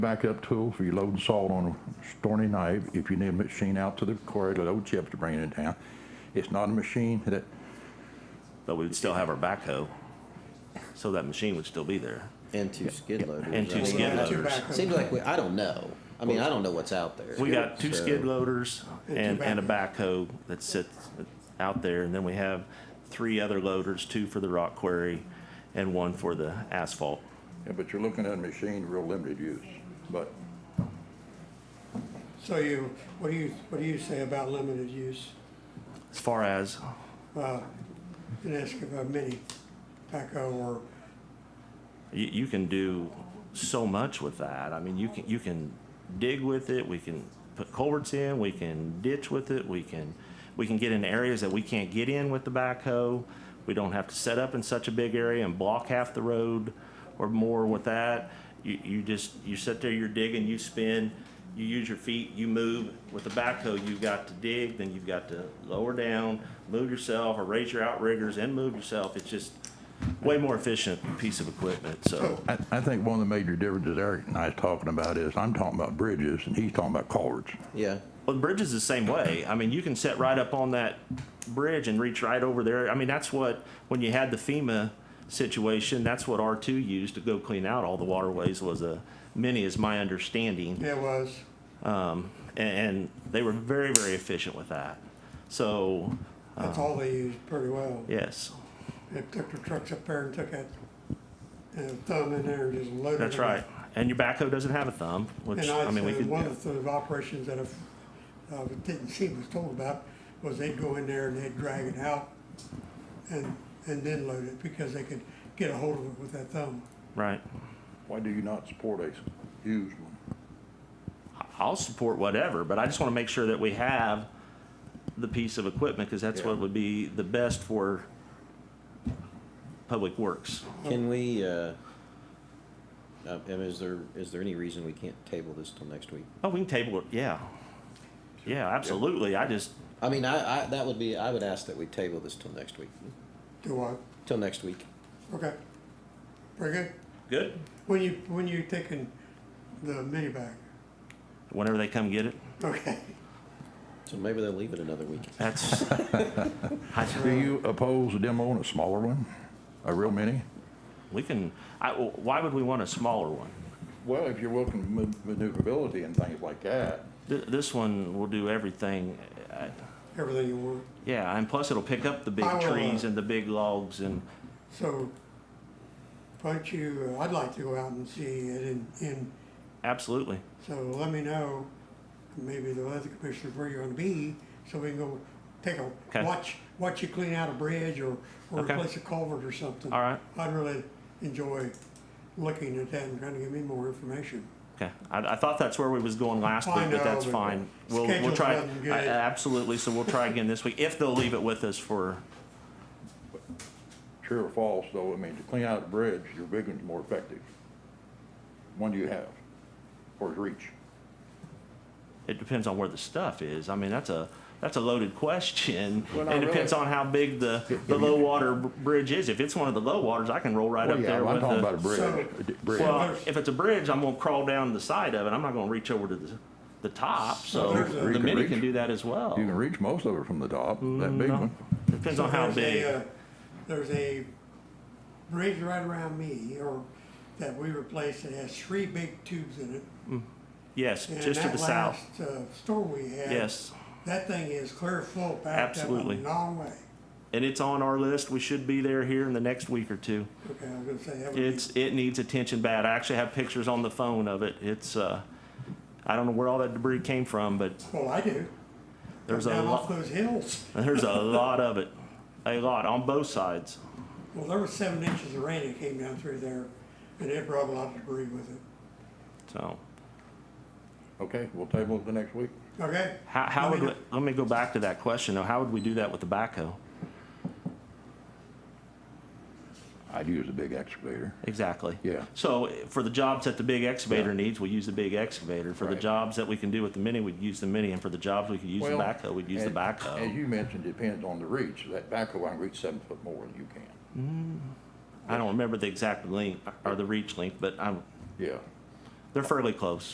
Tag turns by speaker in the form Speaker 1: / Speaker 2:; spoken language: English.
Speaker 1: Backup tool for you loading salt on a stormy night, if you need a machine out to the quarry to load chips to bring it down. It's not a machine that,
Speaker 2: But we would still have our backhoe, so that machine would still be there,
Speaker 3: And two skid loaders.
Speaker 2: and
Speaker 3: I
Speaker 2: two
Speaker 3: mean,
Speaker 2: skid loaders.
Speaker 3: Seems like we, I don't know. I mean, I don't know what's out there.
Speaker 2: We got two
Speaker 3: So-
Speaker 2: skid loaders and, and a backhoe that sits out there, and then we have three other loaders, two for the rock quarry and one for the asphalt.
Speaker 1: yeah, but you're looking at a machine real limited use. But
Speaker 4: So you, what do you, what do you say about limited use?
Speaker 2: As far as,
Speaker 4: And ask about mini backhoe or,
Speaker 2: you, you can do so much with that. I mean, you can, you can dig with it, we can put culverts in, we can ditch with it, we can, we can get in areas that we can't get in with the backhoe. We don't have to set up in such a big area and block half the road or more with that. You, you just, you sit there, you're digging, you spin, you use your feet, you move. With the backhoe, you've got to dig, then you've got to lower down, move yourself, or raise your outriggers and move yourself. It's just way more efficient piece of equipment,
Speaker 4: Oh.
Speaker 2: so.
Speaker 1: I, I think one of the major differences Eric and I is talking about is I'm talking about bridges and he's talking about culverts.
Speaker 3: Yeah.
Speaker 2: Well, the bridge is the same way. I mean, you can set right up on that bridge and reach right over there. I mean, that's what, when you had the FEMA situation, that's what R2 used to go clean out all the waterways was a mini, is my understanding.
Speaker 4: there was,
Speaker 2: And, and they were very, very efficient with that. So,
Speaker 4: that's
Speaker 2: Uh-huh.
Speaker 4: all they used pretty well.
Speaker 2: yes,
Speaker 4: They took their trucks up there and took that, you know, thumb in there and just loaded it.
Speaker 2: that's right. And your backhoe doesn't have a thumb, which,
Speaker 4: And
Speaker 2: I mean, we
Speaker 4: I,
Speaker 2: could,
Speaker 4: one of the operations that I, uh, didn't see was told about was they'd go in there and they'd drag it out and, and then load it because they could get a hold of it with that thumb.
Speaker 2: right.
Speaker 1: Why do you not support a used one?
Speaker 2: I'll support whatever, but I just want to make sure that we have the piece of equipment, because that's what
Speaker 1: Yeah.
Speaker 2: would be the best for Public Works.
Speaker 3: Can we, uh, uh, and is there, is there any reason we can't table this till next week?
Speaker 2: Oh, we can table it, yeah. Yeah, absolutely, I just,
Speaker 3: I mean, I, I, that would be, I would ask that we table this till next week,
Speaker 4: Do what?
Speaker 3: till next week.
Speaker 4: Okay. Very good.
Speaker 2: good,
Speaker 4: When you, when you taking the mini bag?
Speaker 2: whenever they come get it,
Speaker 4: Okay.
Speaker 3: So maybe they'll leave it another week.
Speaker 2: that's. I-
Speaker 1: Do you oppose a demo on a smaller one, a real mini?
Speaker 2: We can, I, why would we want a smaller one?
Speaker 1: Well, if you're looking at maneuverability and things like that.
Speaker 2: Th- This one will do everything, uh,
Speaker 4: Everything you want.
Speaker 2: yeah, and plus it'll pick up the big
Speaker 4: I will, uh,
Speaker 2: trees and the big logs and,
Speaker 4: So, why don't you, I'd like to go out and see it in, in,
Speaker 2: absolutely.
Speaker 4: so let me know, maybe the other commissioners where you're gonna be, so we can go take a,
Speaker 2: Okay.
Speaker 4: watch, watch you clean out a bridge or, or
Speaker 2: Okay.
Speaker 4: replace a culvert or something.
Speaker 2: All right.
Speaker 4: I'd really enjoy looking at that and trying to give me more information.
Speaker 2: Okay, I, I thought that's where we was going last week,
Speaker 4: I
Speaker 2: but
Speaker 4: know,
Speaker 2: that's
Speaker 4: but
Speaker 2: fine. We'll, we'll
Speaker 4: schedule
Speaker 2: try,
Speaker 4: wasn't
Speaker 2: I-
Speaker 4: good.
Speaker 2: absolutely, so we'll try again this week, if they'll leave it with us for,
Speaker 1: True or false, though, I mean, to clean out a bridge, your big one's more effective. One you have, or is reach.
Speaker 2: it depends on where the stuff is. I mean, that's a, that's a loaded question.
Speaker 1: Well, not
Speaker 2: It depends
Speaker 1: really.
Speaker 2: on how big the, the low water br- bridge is. If it's one of the low waters, I can roll right
Speaker 1: Well,
Speaker 2: up
Speaker 1: yeah,
Speaker 2: there
Speaker 1: I'm
Speaker 2: with
Speaker 1: talking about a
Speaker 2: the.
Speaker 1: bridge,
Speaker 4: So-
Speaker 1: a di- bridge.
Speaker 2: Well, if it's a bridge, I'm gonna crawl down the side of it. I'm not gonna reach over to the, the top, so
Speaker 4: there's a-
Speaker 1: You
Speaker 2: the
Speaker 1: can
Speaker 2: mini
Speaker 1: reach.
Speaker 2: can do that as well.
Speaker 1: You can reach most of it from the top, that big
Speaker 2: No.
Speaker 1: one.
Speaker 2: Depends on how
Speaker 4: There's a,
Speaker 2: big.
Speaker 4: uh, There's a bridge right around me, or that we replaced, it has three big tubes in it.
Speaker 2: Yes,
Speaker 4: And
Speaker 2: just to
Speaker 4: that
Speaker 2: the south.
Speaker 4: last, uh, Storm we had.
Speaker 2: Yes.
Speaker 4: That thing is clear full, backed up a
Speaker 2: Absolutely.
Speaker 4: long way.
Speaker 2: and it's on our list. We should be there here in the next week or two.
Speaker 4: Okay, I was gonna say, that would be,
Speaker 2: It's it needs attention bad. I actually have pictures on the phone of it. It's uh, I don't know where all that debris came from, but
Speaker 4: well, I do.
Speaker 2: there's
Speaker 4: Come
Speaker 2: a
Speaker 4: Down off
Speaker 2: lot
Speaker 4: those hills.
Speaker 2: there's a lot of it, a lot on both sides.
Speaker 4: Well, there was seven inches of rain that came down through there, and it brought a lot of debris with it.
Speaker 2: So
Speaker 1: Okay, we'll table it the next week.
Speaker 4: Okay?
Speaker 2: how how
Speaker 4: Let
Speaker 2: would
Speaker 4: me
Speaker 2: we,
Speaker 4: know.
Speaker 2: let me go back to that question though? How would we do that with the backhoe?
Speaker 1: I'd use a big excavator.
Speaker 2: Exactly.
Speaker 1: Yeah.
Speaker 2: So eh, for the jobs that the big excavator needs, we use the big excavator. For the
Speaker 1: Right.
Speaker 2: jobs that we can do with the mini, we'd use the mini, and for the jobs we could use the
Speaker 1: Well,
Speaker 2: backhoe, we'd use the
Speaker 1: and-
Speaker 2: backhoe.
Speaker 1: As you mentioned, depends on the reach. That backhoe, I can reach seven foot more than you can.
Speaker 2: I don't remember the exact length or the reach length, but I'm,
Speaker 1: Yeah.
Speaker 2: They're fairly close.